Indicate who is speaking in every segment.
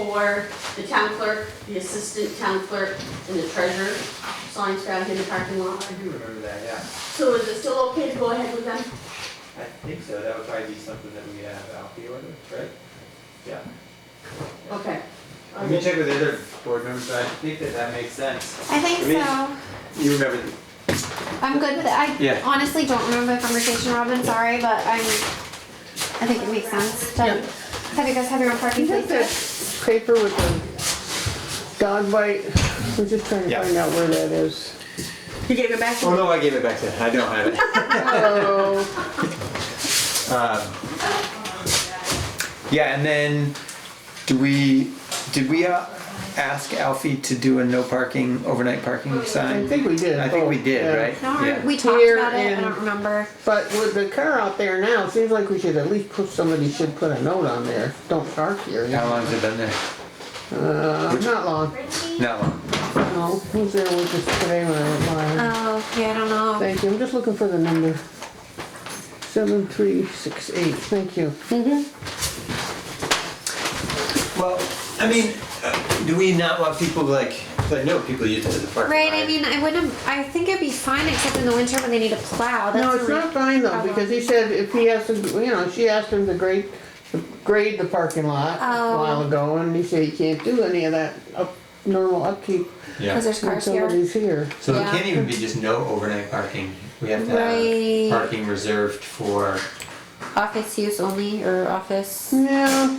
Speaker 1: for the town clerk, the assistant town clerk, and the treasurer. Signs found in the parking lot.
Speaker 2: I do remember that, yeah.
Speaker 1: So is it still okay to go ahead with them?
Speaker 2: I think so, that would probably be something that we could have out here with, right? Yeah.
Speaker 1: Okay.
Speaker 2: Let me check with the other board members, but I think that that makes sense.
Speaker 3: I think
Speaker 2: I mean-
Speaker 3: so.
Speaker 2: You remember, the-
Speaker 3: I'm good with it. I
Speaker 2: Yeah.
Speaker 3: honestly don't remember the conversation, Robin. Sorry, but I'm. I think it makes sense. To
Speaker 1: Yeah.
Speaker 3: Have you guys have your own parking
Speaker 4: You got that
Speaker 3: place?
Speaker 4: paper with the dog bite? We're just trying to
Speaker 2: Yeah.
Speaker 4: find out where that is.
Speaker 1: You gave it back
Speaker 2: oh no, I gave it back to him, I don't have it.
Speaker 4: Oh,
Speaker 5: Yeah, and then do we, did we uh, ask Alfie to do a no parking, overnight
Speaker 3: Oh,
Speaker 5: parking
Speaker 4: I
Speaker 5: sign?
Speaker 4: think we did.
Speaker 5: I think we
Speaker 2: Oh,
Speaker 4: both,
Speaker 5: did,
Speaker 4: yeah.
Speaker 5: right?
Speaker 3: No,
Speaker 5: Yeah.
Speaker 3: we talked
Speaker 4: Here
Speaker 3: about it. I
Speaker 4: and-
Speaker 3: don't remember.
Speaker 4: But with the car out there now, it seems like we should at least put, somebody should put a note on there, don't park here.
Speaker 5: How long's it been there?
Speaker 4: Uh, not long,
Speaker 5: Not long.
Speaker 4: no, who's there with us today when I went by?
Speaker 3: Oh, yeah, I don't know.
Speaker 4: Thank you, I'm just looking for the number. Seven, three, six, eight, thank you.
Speaker 2: Well, I mean, uh, do we not want people like, 'cause I know people use it as a parking lot.
Speaker 3: Right. I mean, I wouldn't. I think it'd be fine except in the winter when they need to plow. That's Oh,
Speaker 4: No, it's
Speaker 3: the only-
Speaker 4: not fine though, because he said if he has to, you know, she asked him to grade, grade the parking lot a
Speaker 3: Oh.
Speaker 4: while ago, and he said he can't do any of that up, normal upkeep
Speaker 3: Cause
Speaker 2: Yeah,
Speaker 3: there's
Speaker 4: when
Speaker 3: cars here.
Speaker 4: somebody's here.
Speaker 2: so it
Speaker 3: Yeah.
Speaker 2: can't even be just no overnight parking, we have to have
Speaker 3: Right.
Speaker 2: parking reserved for,
Speaker 3: Office use only or office.
Speaker 4: Yeah,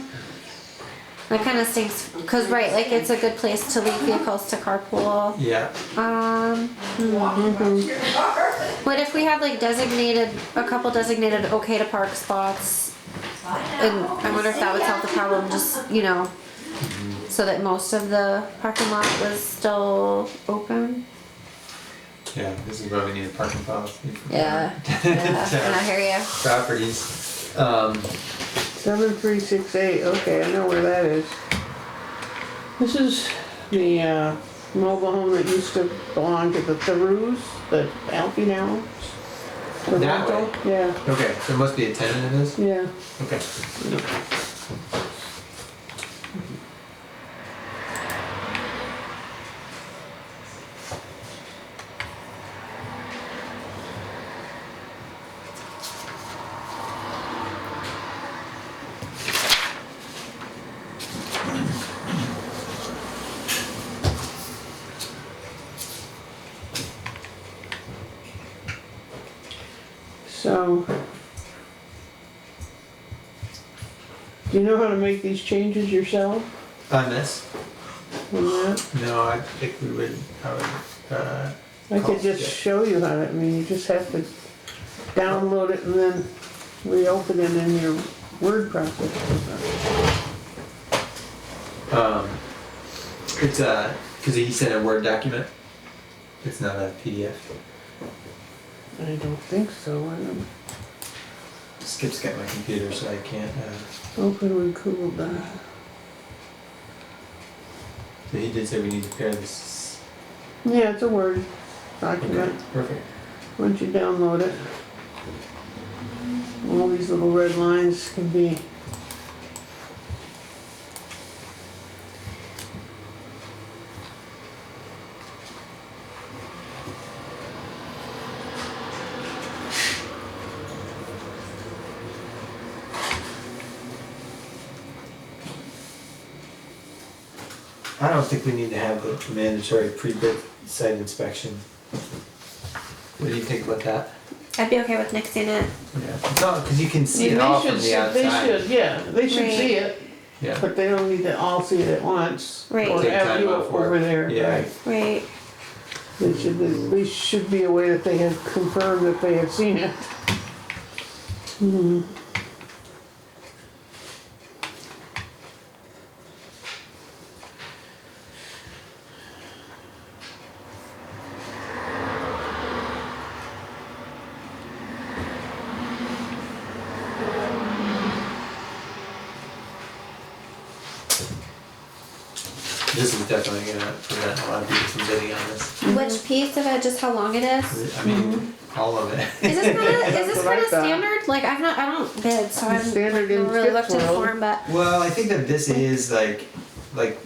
Speaker 3: That kind of stinks. Cause right, like it's a good place to leave vehicles to carpool.
Speaker 2: yeah.
Speaker 3: Um. What if we have like designated, a couple designated okay to park spots? And I wonder if that would solve the problem, just, you know, so that most of the parking lot was still open?
Speaker 2: Yeah, this is why we need a parking policy. for
Speaker 3: Yeah, yeah, and I hear you.
Speaker 2: Properties, um.
Speaker 4: seven, three, six, eight, okay, I know where that is. This is the, uh, mobile home that used to belong to the Theroux, the Alpine Downs. The
Speaker 2: That
Speaker 4: rental. Yeah,
Speaker 2: Okay, so there must be a tenant in this?
Speaker 4: yeah.
Speaker 2: Okay.
Speaker 4: So. Do you know how to make these changes yourself
Speaker 2: On this?
Speaker 4: on that?
Speaker 2: Uh, No, I think we would, I would, uh,
Speaker 4: I could just
Speaker 2: Oh, yeah.
Speaker 4: show you how to, I mean, you just have to download it and then reopen it in your word processor.
Speaker 2: um, it's a, cause he sent a Word document. It's not a PDF.
Speaker 4: I don't think so, I don't,
Speaker 2: Skip's got my computer, so I can't, uh,
Speaker 4: open with Google Doc.
Speaker 2: so he did say we need to pair this.
Speaker 4: Yeah, it's a Word
Speaker 2: Okay,
Speaker 4: document,
Speaker 2: perfect.
Speaker 4: once you download it. All these little red lines can be,
Speaker 2: I don't think we need to have the mandatory pre-bid site inspection. What do you think about that?
Speaker 3: I'd be okay with nixing it.
Speaker 2: Yeah, no, cause you can see
Speaker 4: Yeah,
Speaker 2: it
Speaker 4: they
Speaker 2: all
Speaker 4: should
Speaker 2: from
Speaker 4: see-
Speaker 2: the outside.
Speaker 4: They should, yeah, they should
Speaker 3: Right.
Speaker 4: see it,
Speaker 2: Yeah,
Speaker 4: but they don't need to all see it at once.
Speaker 3: Right.
Speaker 4: Or
Speaker 2: Take
Speaker 4: have
Speaker 2: time
Speaker 4: you
Speaker 2: off work.
Speaker 4: over there,
Speaker 2: Yeah.
Speaker 4: right?
Speaker 3: Right.
Speaker 4: They should, at least should be aware that they have confirmed that they have seen it.
Speaker 2: this is definitely gonna prevent a lot of people from bidding on this.
Speaker 3: Which piece of it, just how long it is?
Speaker 2: I mean,
Speaker 4: Mm-hmm.
Speaker 2: all of it.
Speaker 3: Is this kinda, is
Speaker 4: That's
Speaker 3: this
Speaker 4: what I
Speaker 3: kinda
Speaker 4: thought.
Speaker 3: standard? Like, I've not, I don't bid, so I'm
Speaker 4: standard in
Speaker 3: really looked
Speaker 4: Skip's
Speaker 3: in
Speaker 4: world.
Speaker 3: form, but
Speaker 2: Well, I think that this is like like